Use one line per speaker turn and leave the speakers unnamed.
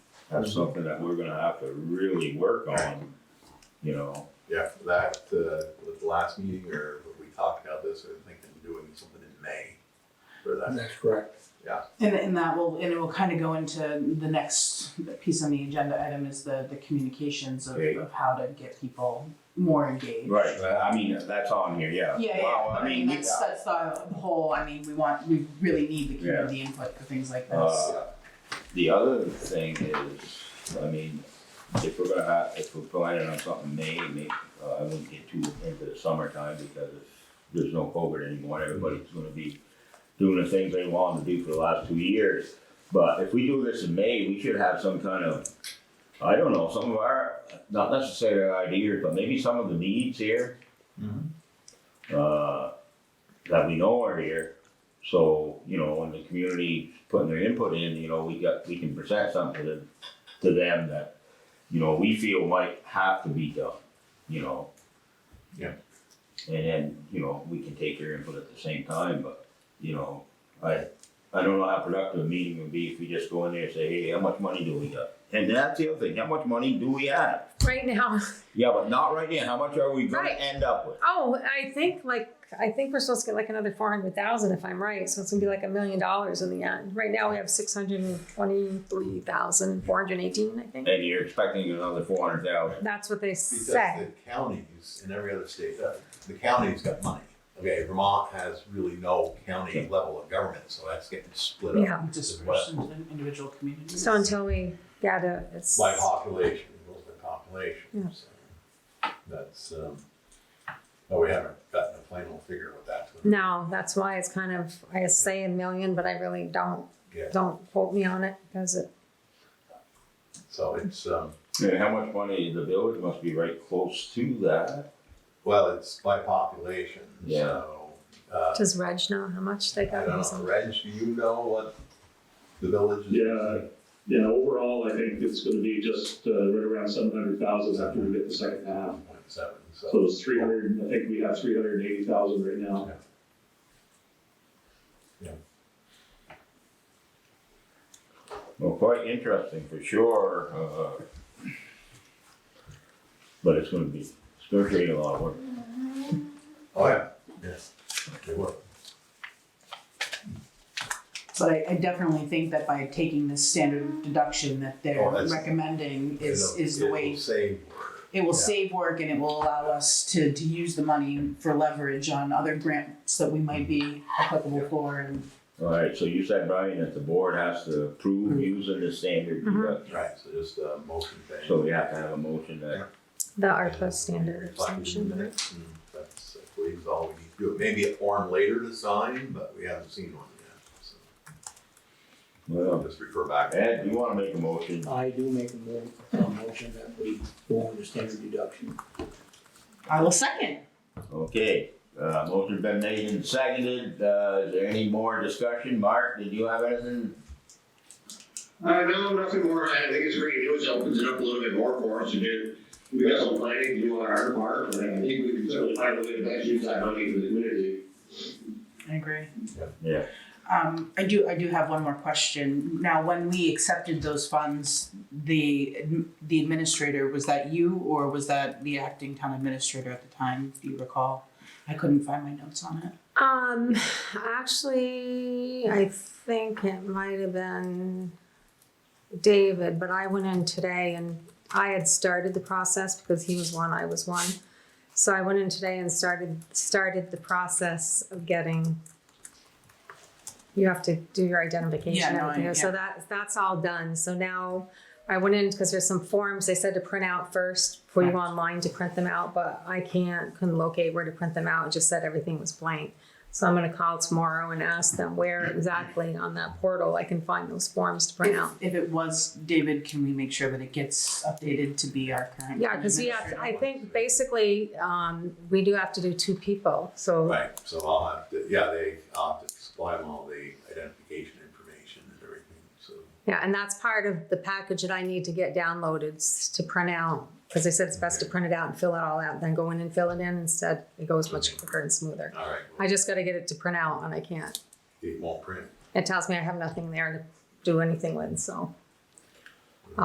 that's something that we're gonna have to really work on, you know?
Yeah, for that, uh, with the last meeting or when we talked about this, I think I'm doing something in May for that.
That's correct.
And, and that will, and it will kind of go into the next piece on the agenda item is the, the communications of,
Okay.
of how to get people more engaged.
Right, but I mean, that's on here, yeah.
Yeah, yeah,
Well,
I mean, that's, that's the whole, I mean, we want, we really need the community input for things like this.
Uh, The other thing is, I mean, if we're gonna have, if we're planning on something May, may, uh, I wouldn't get too into the summertime because there's no COVID anymore, everybody's gonna be doing the things they wanted to do for the last two years. But if we do this in May, we should have some kind of, I don't know, some of our, not necessarily our ideas, but maybe some of the needs here.
Mhm.
Uh, that we know are here, so, you know, when the community putting their input in, you know, we got, we can present something to, to them that, you know, we feel might have to be done, you know?
Yeah.
And then, you know, we can take their input at the same time, but, you know, I, I don't know how productive a meeting would be if we just go in there and say, hey, how much money do we got? And that's the other thing, how much money do we have?
right now.
Yeah, but not right now, how much are we gonna
Right.
end up with?
Oh, I think like I think we're supposed to get like another four hundred thousand if I'm right. So it's gonna be like a million dollars in the end. Right now we have six hundred and twenty three thousand four hundred eighteen, I think.
And you're expecting another four hundred thousand.
That's what they
Because
say.
the counties and every other state does, the county's got money. Okay, Vermont has really no county level of government, so that's getting split up.
Yeah.
Dispersed into individual communities.
So until we get it, it's
By population, rules by
Yeah.
population, so. That's, um, no, we haven't gotten a final figure with that.
no, that's why it's kind of I say a million, but I really don't
Yeah,
don't quote me on it because it
so it's, um,
And how much money, the village must be right close to that.
well, it's by population,
Yeah.
so, uh,
does Reg know how much they
I
got?
don't know, Reg, do you know what the village is?
Yeah. Yeah, overall, I think it's gonna be just uh, right around seven hundred thousand after we get the second half.
One point seven,
So
so,
it's three hundred, I think we have three hundred and eighty thousand right now.
Well, quite interesting for sure, uh. But it's gonna be, it's gonna create a lot of work.
oh, yeah, yes, they were.
But I, I definitely think that by taking this standard deduction that they're
Oh, that's-
recommending is,
It'll-
is the
it'll
way,
Save,
it will
yeah.
save work and it will allow us to, to use the money for leverage on other grants that we might be applicable for and
Alright, so you said, Brian, that the board has to approve using the standard
Mhm.
deduction.
right, so just a motion thing.
So we have to have a motion that,
The ARPA standard exemption, right?
That's, I believe, is all we need to do. Maybe a form later to sign, but we haven't seen one yet, so I'll
well,
just refer back.
Oh. Ed, you wanna make a motion?
I do make a mo- a motion that we go under standard deduction.
I will second.
Okay, uh, motion's been made and seconded, uh, is there any more discussion? Mark, did you have anything?
Uh, no, nothing more. I think it's great news. It opens it up a little bit more for us to do. We got some planning to do on our part, but I think we can certainly find a way to best use that money for the community.
I agree.
Yeah.
Um, I do, I do have one more question. Now, when we accepted those funds, the, adm- the administrator, was that you or was that the acting town administrator at the time? Do you recall? I couldn't find my notes on it.
Um, actually, I think it might have been David, but I went in today and I had started the process because he was one, I was one. So I went in today and started started the process of getting. You have to do your identification.
Yeah, no,
and everything.
I- yeah.
So that that's all done. So now I went in because there's some forms they said to print out first before you go online to print them out, but I can't couldn't locate where to print them out. It just said everything was blank. So I'm gonna call tomorrow and ask them where exactly on that portal I can find those forms to print
If-
out.
If it was David, can we make sure that it gets updated to be our current?
Yeah, because we have, I think basically, um, we do have to do two people, so,
Right, so I'll have to, yeah, they opt to supply them all the identification information and everything, so.
yeah, and that's part of the package that I need to get downloaded s- to print out. Because they said it's best to print it out and fill it all out, then go in and fill it in instead. It goes much quicker and smoother.
All right,
I
well,
just gotta get it to print out and I can't.
it won't print.
It tells me I have nothing there to do anything with, so.